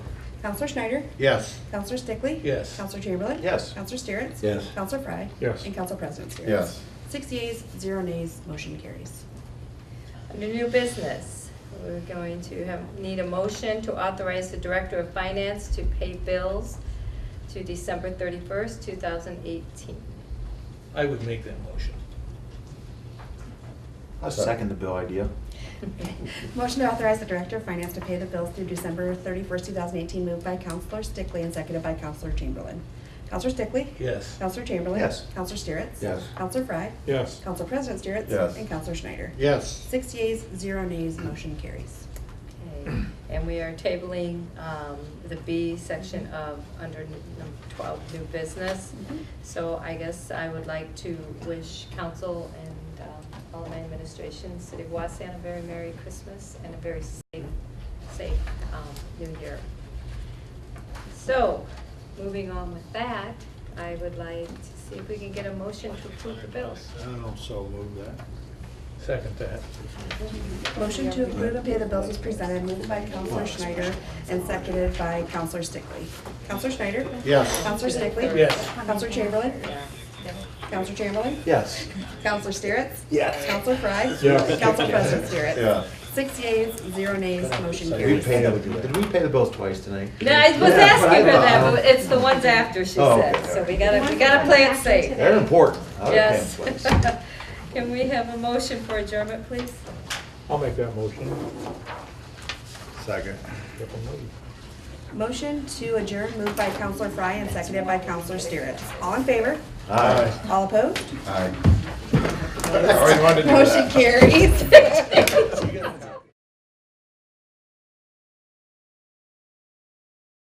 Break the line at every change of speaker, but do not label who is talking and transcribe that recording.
Counselor Schneider?
Yes.
Counselor Stickley?
Yes.
Counselor Chamberlain?
Yes.
Counselor Steeritz?
Yes.
Counselor Frye?
Yes.
And Counsel President Steeritz?
Yes.
Six yeas, zero nays, motion carries.
Under new business, we're going to have, need a motion to authorize the Director of Finance to pay bills to December 31st, 2018.
I would make that motion.
I second the bill idea.
Motion to authorize the Director of Finance to pay the bills through December 31st, 2018, moved by Counselor Stickley and seconded by Counselor Chamberlain. Counselor Stickley?
Yes.
Counselor Chamberlain?
Yes.
Counselor Steeritz?
Yes.
Counselor Frye?
Yes.
Counsel President Steeritz?
Yes.
And Counselor Schneider?
Yes.
Six yeas, zero nays, motion carries.
Okay, And we are tabling um, the B section of under n- number 12, new business.
Mhm.
So I guess I would like to wish council and um, all of my administration, City of Waseon, a very Merry Christmas and a very safe, safe um, New Year. So, moving on with that, I would like to see if we can get a motion to approve the bills.
don't know, so move that.
Second that.
Motion to approve and pay the bills was presented, moved by Counselor Schneider and seconded by Counselor Stickley. Counselor Schneider?
Yes.
Counselor Stickley?
Yes.
Counselor Chamberlain?
Yeah.
Counselor Chamberlain?
Yes.
Counselor Steeritz?
Yes.
Counselor Frye?
Yes.
Counselor President Steeritz?
Yeah.
Six yeas, zero nays, motion
Did we
carries.
pay, did we pay the bills twice tonight?
No, I was
Yeah,
asking
but
for
I
that,
thought-
but it's the ones after, she
Oh,
said,
okay.
so we gotta, we gotta play it safe.
They're important. I would pay them
Yes.
twice.
Can we have a motion for adjournment, please?
I'll make that motion.
Second.
Motion to adjourn, moved by Counselor Frye and seconded by Counselor Steeritz. All in favor?
Aye.
All opposed?
Aye. I already wanted to do that.
Motion carries.